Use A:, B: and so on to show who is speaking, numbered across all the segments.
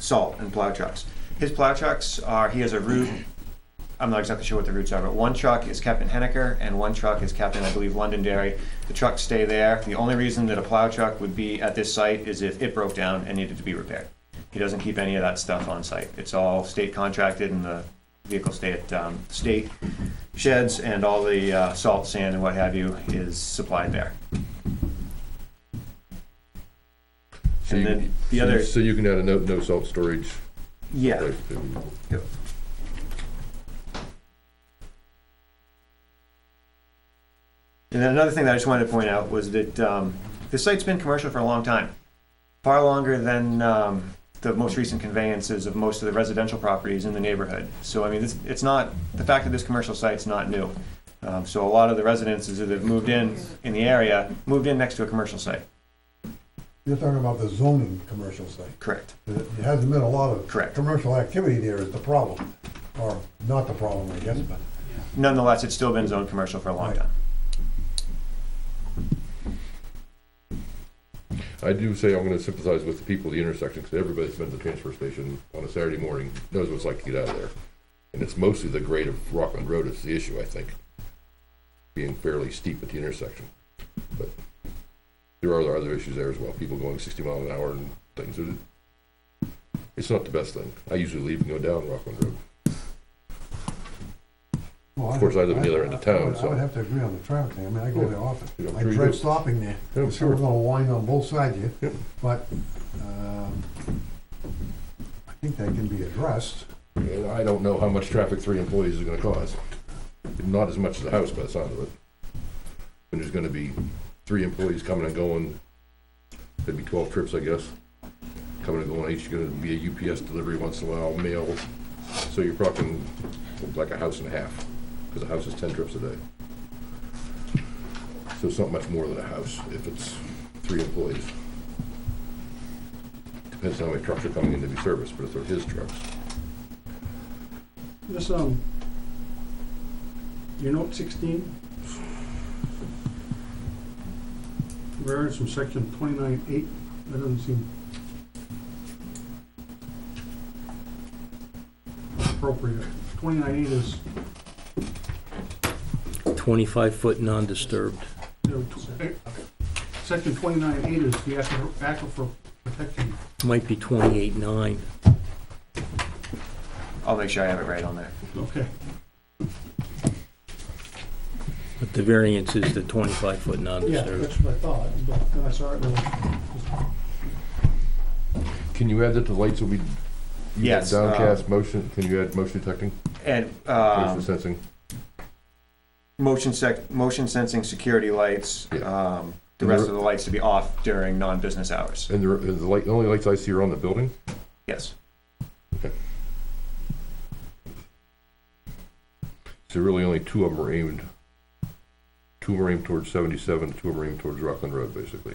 A: salt and plow trucks. His plow trucks are, he has a route, I'm not exactly sure what the routes are, but one truck is kept in Hennecker and one truck is kept in, I believe, Londonderry. The trucks stay there. The only reason that a plow truck would be at this site is if it broke down and needed to be repaired. He doesn't keep any of that stuff on site. It's all state contracted and the vehicles stay at um, state sheds and all the uh, salt, sand, and what have you is supplied there.
B: So
A: And
B: you-
A: then the
B: so you-
A: other,
B: So you can add a no, no salt storage.
A: yeah.
B: place to-
A: And then another thing that I just wanted to point out was that um, the site's been commercial for a long time, far longer than um, the most recent conveyances of most of the residential properties in the neighborhood. So I mean, it's, it's not the fact that this commercial site's not new. Um, so a lot of the residences that have moved in in the area moved in next to a commercial site.
C: You're talking about the zoning commercial site.
A: Correct.
C: There hasn't been a lot of.
A: Correct.
C: Commercial activity there is the problem, or not the problem, I guess, but.
A: Nonetheless, it's still been zoned commercial for a long
C: Right.
A: time.
B: I do say I'm gonna sympathize with the people at the intersection, because everybody's been to the transfer station on a Saturday morning, knows what it's like to get out of there. And it's mostly the grade of Rockland Road is the issue, I think, being fairly steep at the intersection. But there are other issues there as well, people going sixty miles an hour and things. It- It's not the best thing. I usually leave and go down Rockland Road. Of course, I live on the other end of town,
C: I would-
B: so-
C: I would have to agree on the traffic thing, I mean, I go there often,
B: Yeah, I'm
C: I
B: sure you
C: dread
B: do.
C: stopping there,
B: Yeah, I'm
C: It's sort of
B: sure.
C: gonna wind on both sides of
B: Yep.
C: you, but, um, I think that can be addressed.
B: And I don't know how much traffic three employees is gonna cause. Not as much as a house by the sound of it. And there's gonna be three employees coming and going, that'd be twelve trips, I guess. Coming and going, each gonna be a UPS delivery once in a while, mail. So you're talking like a house and a half, because a house is ten trips a day. So it's not much more than a house if it's three employees. Depends on how many trucks are coming in to be serviced, but if they're his trucks.
D: This, um, your note sixteen. Variance from section twenty-nine eight, that doesn't seem appropriate. Twenty-nine eight is,
E: 25-foot non-disturbed.
D: you know, tw- eh, section twenty-nine eight is the aquifer aquifer protection.
E: Might be 28-9.
A: I'll make sure I have it right on there.
D: Okay,
E: But the variance is the 25-foot
D: yeah,
E: non-disturbed.
D: that's what I thought, but uh, then I saw it, and I
B: Can you add that the lights will be? you got
A: Yes,
B: Downcast motion, can you add motion detecting,
A: And
B: motion
A: um,
B: sensing?
A: motion sec, motion sensing security lights,
B: Yeah.
A: um, the rest of the lights to be off during non-business hours.
B: And the, and the light, the only lights I see are on the building?
A: Yes.
B: So really only two of them are aimed, two of 'em are aimed towards seventy-seven, two of 'em are aimed towards Rockland Road, basically.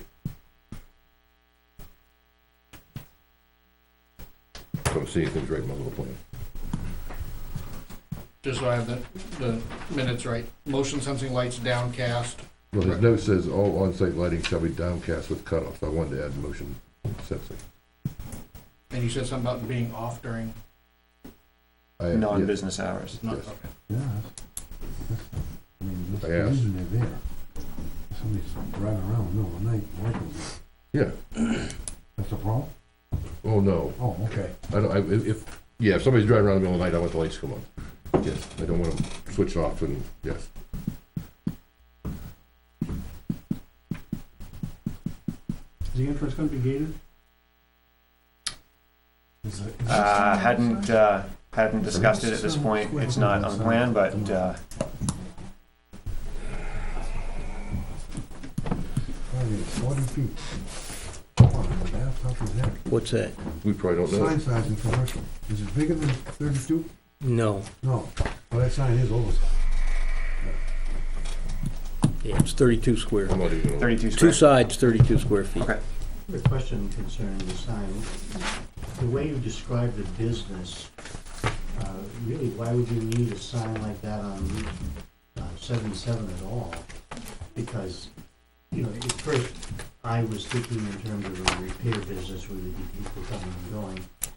B: So I'm seeing things right in my little plan.
F: Just so I have the, the minutes right. Motion sensing lights downcast.
B: Well, his note says all on-site lighting shall be downcast with cutoff, I wanted to add motion sensing.
F: And you said something about being off during,
B: I- yeah,
A: non-business hours.
F: not,
B: Yes.
F: okay.
C: Yeah. that's- that's- I mean, that's
B: Yes.
C: the reason they're there. Somebody's driving around in the middle of the night, working.
B: Yeah,
C: that's a problem?
B: oh no,
C: Oh, okay.
B: I don't, I, if, if- yeah, if somebody's driving around in the middle of the night, I want the lights to come on. Yes, I don't want to switch off and, yes.
D: is the entrance gonna be gated?
A: Uh, hadn't, uh, hadn't discussed it at this point. It's not on plan, but, uh,
C: Probably forty feet. Come on, the bathtub is there.
E: What's that?
B: We probably don't know.
C: Sign size in commercial, is it bigger than thirty-two?
E: No,
C: No, well, that sign is oversized.
E: yeah, it's 32 square.
B: I'm not even gonna-
A: thirty-two
E: Two
A: square.
E: sides, 32 square feet.
A: Okay.
G: A question concerning the sign. The way you describe the business, uh, really, why would you need a sign like that on Route uh, 77 at all? Because, you know, at first, I was thinking in terms of a repair business where there'd be people coming and going.